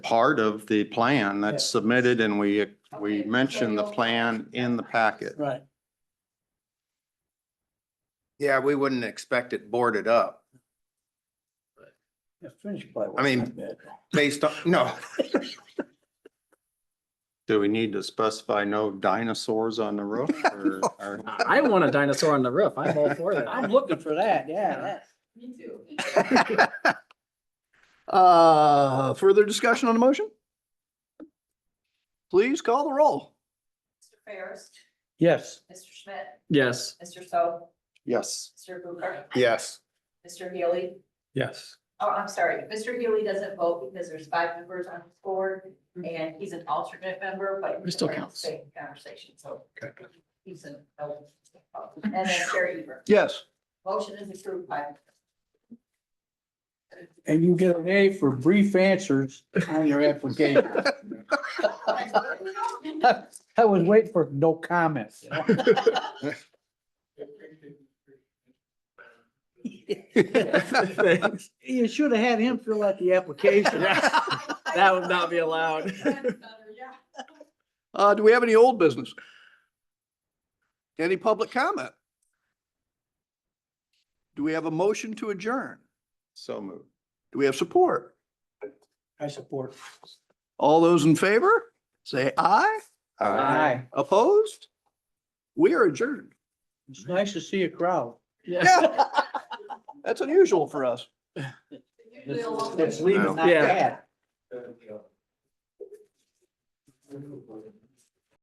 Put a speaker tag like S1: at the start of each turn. S1: part of the plan that's
S2: Yeah.
S1: submitted and we, we
S3: Okay, so
S1: mentioned the
S3: you'll-
S1: plan in the packet.
S2: Right.
S1: Yeah, we wouldn't expect it boarded up
S2: Yeah, finish play.
S1: I mean-
S2: wasn't that bad.
S1: based on, no. Do we need to specify no dinosaurs on the roof or? or-
S4: I I want a dinosaur on the roof. I'm all for
S2: I'm
S4: that.
S2: looking for that, yeah, that-
S3: Me too.
S5: Uh, further discussion on the motion? Please call the roll.
S3: Mr. Ferris,
S2: yes.
S3: Mr. Schmidt,
S4: Yes.
S3: Mr. So,
S1: Yes.
S3: Mr. Booker,
S1: Yes.
S3: Mr. Healy.
S2: Yes.
S3: Oh, I'm sorry, Mr. Healy doesn't vote because there's five members on his board and he's an alternate member, but.
S4: He still
S3: we're in the
S4: counts.
S3: Same conversation, so. He's an. And then Chair Eber,
S5: Yes.
S3: motion is approved by.
S2: And you get an A for brief answers on your application. I was waiting for no comments. you know?
S4: Thanks.
S2: You should have had him fill out the application.
S4: That would not be allowed.
S3: Yeah.
S5: Uh, do we have any old business? Any public comment? Do we have a motion to adjourn?
S1: So moved.
S5: Do we have support?
S2: I support.
S5: All those in favor, say aye.
S1: Uh,
S2: Aye.
S5: Opposed? We are adjourned.
S2: It's nice to see a crowd.
S5: Yeah. That's unusual for us.
S3: Usually a long-
S2: That's leaving, not
S4: Yeah.
S2: bad.